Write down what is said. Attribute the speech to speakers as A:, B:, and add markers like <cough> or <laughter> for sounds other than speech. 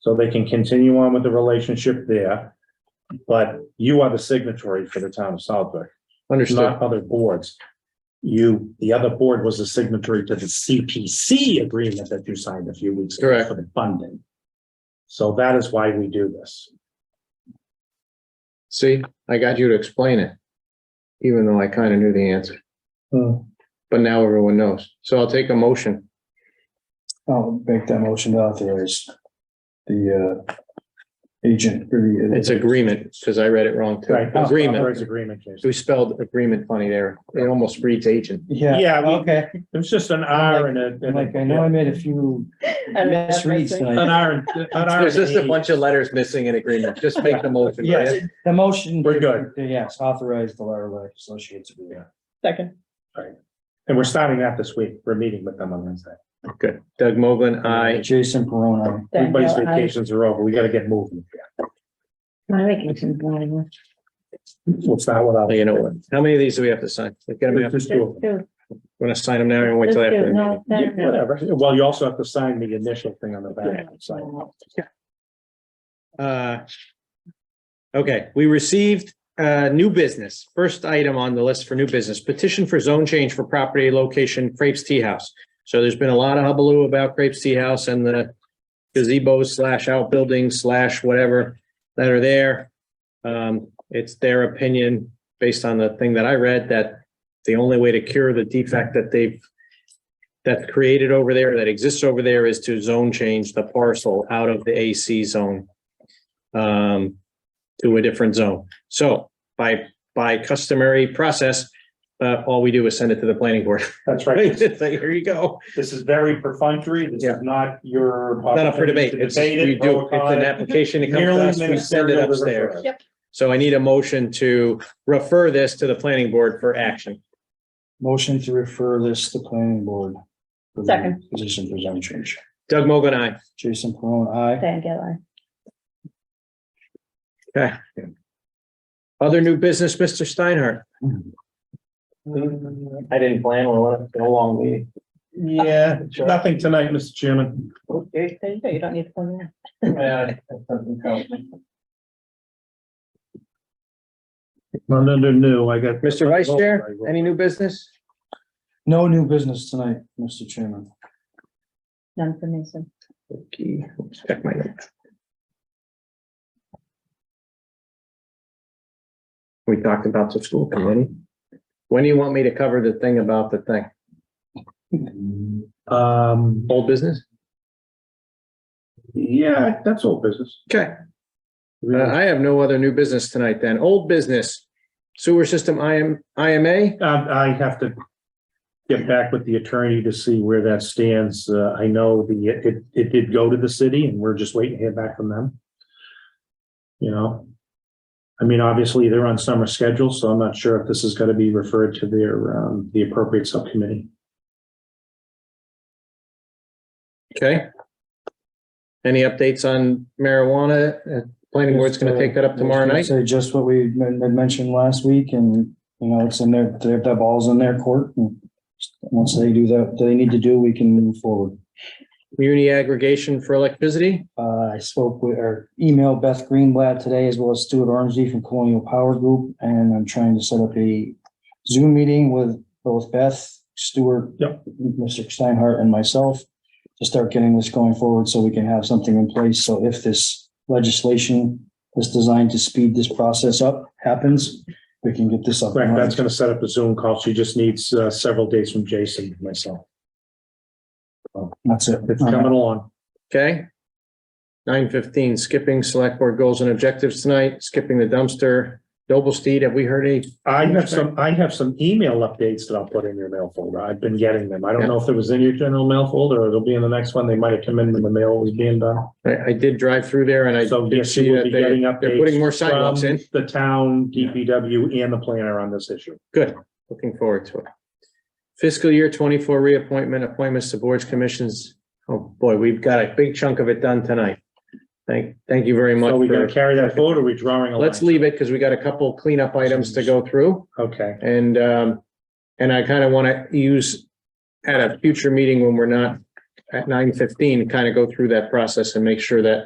A: So they can continue on with the relationship there. But you are the signatory for the town of Southwick,
B: Understood.
A: not other boards. You, the other board was a signatory to the CPC agreement that you signed a few weeks ago
B: Correct.
A: for the funding. So that is why we do this.
B: See, I got you to explain it. Even though I kind of knew the answer,
A: Hmm.
B: but now everyone knows. So I'll take a motion.
C: I'll make that motion to authorize the uh agent. uh,
B: It's agreement, because I read it wrong too.
A: Right. Oh, Authorized
B: Agreement.
A: Agreement, Jason.
B: We spelled agreement funny there. It almost reads agent.
C: Yeah.
A: Yeah, we-
C: Okay,
A: It was just an R and a.
C: I'm like, I know I made a few misreads
A: An
C: tonight.
A: R and. an R
B: <laughs> There's
A: and
B: just a
A: E.
B: bunch of letters missing in agreement. Just make the motion.
C: Yes, the motion.
A: We're good.
C: Yes, authorize the Larry Associates. uh, agreement.
D: Second,
A: And we're starting that this week. We're meeting with them on Wednesday.
B: Good. Doug Moglen, aye.
C: Jason Perona.
D: Dan
A: Everybody's
D: Hill, aye.
A: vacations are over. We gotta get moving.
D: My vacation's not even.
A: We'll start without.
B: Oh, You know what? How many of these do we have to sign? We're gonna have to,
A: Just do it.
B: we're gonna sign them now and wait till after. the meeting.
A: Whatever. Well, you also have to sign the initial thing on the back. So
B: Uh, Okay, we received uh, new business. First item on the list for new business, petition for zone change for property location Crepes Tea House. So there's been a lot of hubbub about Crepes Tea House and the gazebo slash outbuilding slash whatever that are there. Um, It's their opinion, based on the thing that I read, that the only way to cure the defect that they've that's created over there, that exists over there, is to zone change the parcel out of the AC zone um, to a different zone. So by, by customary process, uh, all we do is send it to the planning board. <laughs>
A: that's
B: Right?
A: right.
B: It's like, Here you go.
A: This is very perfunctory. This
B: Yeah.
A: is not your.
B: Not up for debate.
A: opportunity to
B: It's, we
A: debate it,
B: do,
A: vote
B: it's
A: on
B: an
A: it.
B: application. It comes to
A: Merely
B: us, we send it
A: ministerial to refer.
B: upstairs. So I need a motion to refer this to the planning board for action.
C: Motion to refer this to planning board. for the
D: Second.
C: Position for zone change.
B: Doug Mogul, aye.
C: Jason Perona, aye.
D: Dan Gill, aye.
B: Other new business, Mr. Steinhardt.
E: I didn't plan on it, been a long meeting.
A: Yeah, nothing tonight, Mr. Chairman.
E: Okay.
D: There you go, you don't need to phone now.
A: None under new. I got.
B: Mr. Vice Chair, any new business?
C: No new business tonight, Mr. Chairman.
D: None for me, so.
B: Okay, let's check my notes. We talked about the school committee. When do you want me to cover the thing about the thing?
A: Um,
B: Old business?
A: yeah, that's all business.
B: Okay. Uh, I have no other new business tonight then. Old business. Sewer system IM, IMA?
A: Um, I have to get back with the attorney to see where that stands. Uh, I know the, it, it did go to the city and we're just waiting to hear back from them. You know? I mean, obviously, they're on summer schedule, so I'm not sure if this is gonna be referred to their, um, the appropriate subcommittee.
B: Okay. Any updates on marijuana? Uh, Planning board's gonna take that up tomorrow
C: Just, uh,
B: night?
C: Say just what we men- had mentioned last week and, you know, it's in their, they have that ball's in their court. and Once they do that, they need to do, we can move forward.
B: Muni aggregation for electricity?
C: Uh, I spoke with, or emailed Beth Greenblatt today as well as Stuart Ormsby from Colonial Power Group. And I'm trying to set up a Zoom meeting with both Beth, Stuart,
A: Yep.
C: Mr. Steinhardt and myself to start getting this going forward so we can have something in place. So if this legislation is designed to speed this process up happens, we can get this up. and
A: Correct, that's
C: running.
A: gonna set up a Zoom call. She just needs, uh, several dates from Jason and myself.
C: That's it.
A: It's coming along.
B: Okay. Nine fifteen, skipping select board goals and objectives tonight, skipping the dumpster. Doblesteed, have we heard any?
A: I have some, I have some email updates that I'll put in your mail folder. I've been getting them. I don't know if it was in your general mail folder or it'll be in the next one. They might have come in when the mail was being done.
B: I, I did drive through there and I
A: So
B: did
A: yes, you
B: see
A: will
B: that
A: be
B: they're,
A: getting updates.
B: they're putting more sidewalks
A: from
B: in.
A: The town, DPW and the planner on this issue.
B: Looking forward to it. Fiscal year twenty-four reappointment, appointments to boards, commissions. Oh, boy, we've got a big chunk of it done tonight. Thank, thank you very much.
A: So we
B: for-
A: gonna carry that forward or are we drawing a line?
B: Let's leave it because we got a couple cleanup items to go through.
A: Okay,
B: And, um, and I kind of want to use at a future meeting when we're not at nine fifteen, kind of go through that process and make sure that